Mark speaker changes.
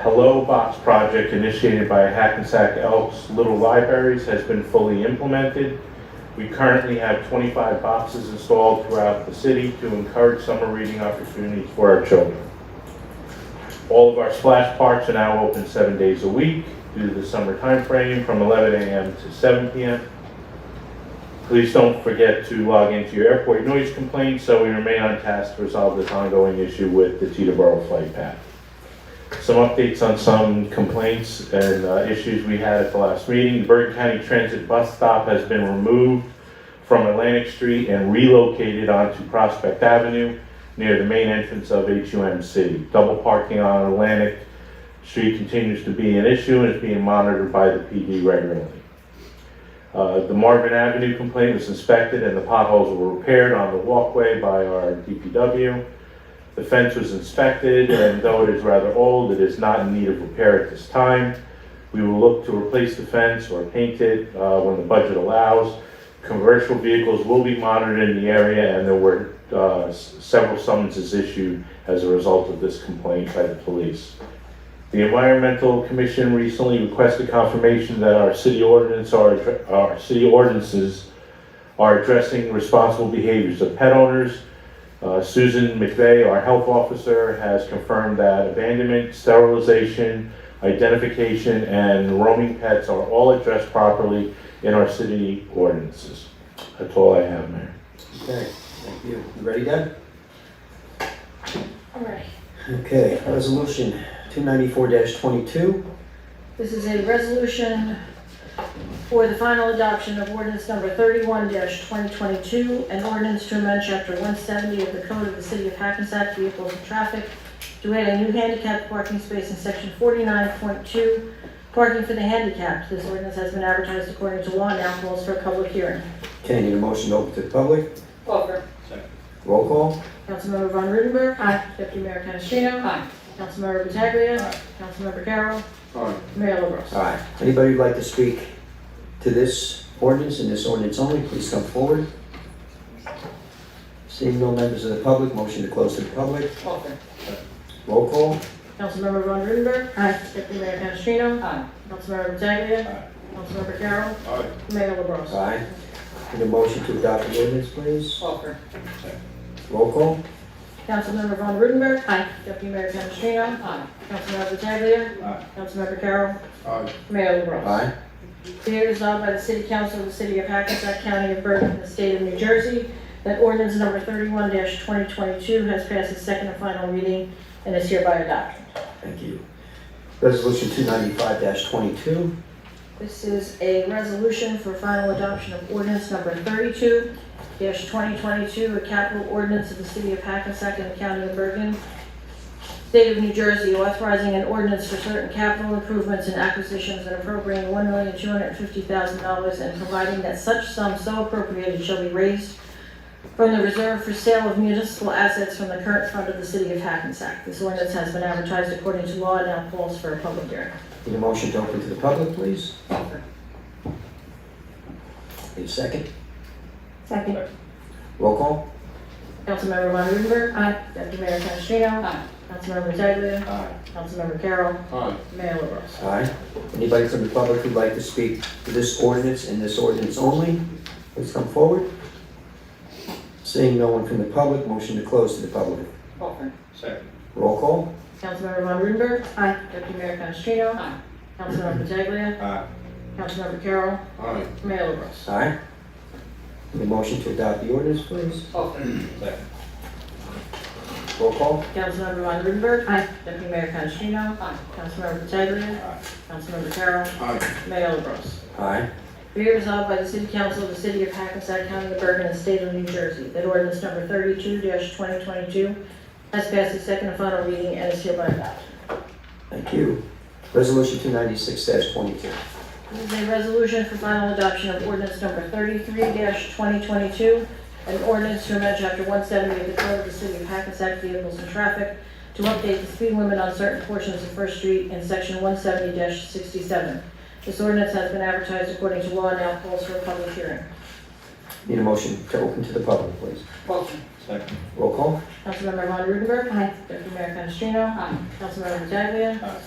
Speaker 1: Hello Box project initiated by Hackensack Elks Little Libraries has been fully implemented. We currently have 25 boxes installed throughout the city to encourage summer reading opportunities for our children. All of our splash parks are now open seven days a week due to the summer time frame, from 11 a.m. to 7 p.m. Please don't forget to log into your airport noise complaint so we remain on task to resolve this ongoing issue with the Teterboro flight path. Some updates on some complaints and uh, issues we had at the last meeting. The Bergen County Transit Bus Stop has been removed from Atlantic Street and relocated onto Prospect Avenue near the main entrance of HUMC. Double parking on Atlantic Street continues to be an issue and is being monitored by the PD regularly. Uh, The Marvin Avenue complaint was inspected and the potholes were repaired on the walkway by our DPW. The fence was inspected and though it is rather old, it is not in need of repair at this time. We will look to replace the fence or paint it uh, when the budget allows. Commercial vehicles will be monitored in the area and there were uh, s- several summonses issued as a result of this complaint by the police. The Environmental Commission recently requested confirmation that our city ordinance are, addre- our city ordinances are addressing responsible behaviors of pet owners. Uh, Susan McVeigh, our health officer, has confirmed that abandonment, sterilization, identification, and roaming pets are all addressed properly in our city ordinances. That's all I have, Mayor.
Speaker 2: Okay, thank you. You ready, Deb?
Speaker 3: All right.
Speaker 2: Okay, resolution two ninety-four twenty-two.
Speaker 3: This is a resolution for the final adoption of ordinance number thirty-one twenty twenty-two, an ordinance to amend chapter one seventy of the code of the city of Hackensack Vehicles and Traffic to add a new handicap parking space in section forty-nine point two, parking for the handicapped. This ordinance has been advertised according to law and now calls for a public hearing.
Speaker 2: Okay, need a motion to open to the public?
Speaker 4: Over.
Speaker 2: Roll call?
Speaker 3: Councilmember Von Rudenberg. Aye. Deputy Mayor Canestrino.
Speaker 4: Aye.
Speaker 3: Councilmember Pataglia.
Speaker 4: Aye.
Speaker 3: Councilmember Carroll.
Speaker 2: Aye.
Speaker 3: Mayor LaBrus.
Speaker 2: All right, anybody who'd like to speak to this ordinance and this ordinance only, please come forward. Seeing no members of the public, motion to close to the public.
Speaker 4: Over.
Speaker 2: Roll call?
Speaker 3: Councilmember Von Rudenberg. Aye. Deputy Mayor Canestrino.
Speaker 4: Aye.
Speaker 3: Councilmember Pataglia. Councilmember Carroll. Mayor LaBrus.
Speaker 2: Aye. Need a motion to adopt the ordinance, please.
Speaker 4: Over.
Speaker 2: Roll call?
Speaker 3: Councilmember Von Rudenberg. Aye. Deputy Mayor Canestrino.
Speaker 4: Aye.
Speaker 3: Councilmember Pataglia.
Speaker 5: Aye.
Speaker 3: Councilmember Carroll. Mayor LaBrus.
Speaker 2: Aye.
Speaker 3: Be it resolved by the City Council of the City of Hackensack County of Bergen, the State of New Jersey, that ordinance number thirty-one twenty twenty-two has passed its second and final reading and is hereby adopted.
Speaker 2: Thank you. Resolution two ninety-five twenty-two.
Speaker 3: This is a resolution for final adoption of ordinance number thirty-two twenty twenty-two, a capital ordinance of the City of Hackensack and the County of Bergen, State of New Jersey, authorizing an ordinance for certain capital improvements and acquisitions and appropriating one million two hundred fifty thousand dollars and providing that such sum so appropriated shall be raised from the reserve for sale of municipal assets from the current fund of the City of Hackensack. This ordinance has been advertised according to law and now calls for a public hearing.
Speaker 2: Need a motion to open to the public, please?
Speaker 4: Over.
Speaker 2: Need a second?
Speaker 3: Second.
Speaker 2: Roll call?
Speaker 3: Councilmember Von Rudenberg. Aye. Deputy Mayor Canestrino.
Speaker 4: Aye.
Speaker 3: Councilmember Pataglia.
Speaker 5: Aye.
Speaker 3: Councilmember Carroll. Mayor LaBrus.
Speaker 2: Aye. Anybody from the public who'd like to speak to this ordinance and this ordinance only, please come forward. Seeing no one from the public, motion to close to the public.
Speaker 4: Over.
Speaker 5: Second.
Speaker 2: Roll call?
Speaker 3: Councilmember Von Rudenberg. Aye. Deputy Mayor Canestrino.
Speaker 4: Aye.
Speaker 3: Councilmember Pataglia.
Speaker 5: Aye.
Speaker 3: Councilmember Carroll.
Speaker 5: Aye.
Speaker 3: Mayor LaBrus.
Speaker 2: Aye. Need a motion to adopt the ordinance, please?
Speaker 4: Over.
Speaker 5: Second.
Speaker 2: Roll call?
Speaker 3: Councilmember Von Rudenberg. Aye. Deputy Mayor Canestrino.
Speaker 4: Aye.
Speaker 3: Councilmember Pataglia.
Speaker 5: Aye.
Speaker 3: Councilmember Carroll.
Speaker 5: Aye.
Speaker 3: Mayor LaBrus.
Speaker 2: Aye.
Speaker 3: Be it resolved by the City Council of the City of Hackensack County of Bergen and State of New Jersey that ordinance number thirty-two twenty twenty-two has passed its second and final reading and is hereby adopted.
Speaker 2: Thank you. Resolution two ninety-six twenty-two.
Speaker 3: This is a resolution for final adoption of ordinance number thirty-three twenty twenty-two, an ordinance to amend chapter one seventy of the code of the city of Hackensack Vehicles and Traffic to update the speed limit on certain portions of First Street in section one seventy sixty-seven. This ordinance has been advertised according to law and now calls for a public hearing.
Speaker 2: Need a motion to open to the public, please?
Speaker 4: Over.
Speaker 5: Second.
Speaker 2: Roll call?
Speaker 3: Councilmember Von Rudenberg. Deputy Mayor Canestrino.
Speaker 4: Aye.
Speaker 3: Councilmember Pataglia.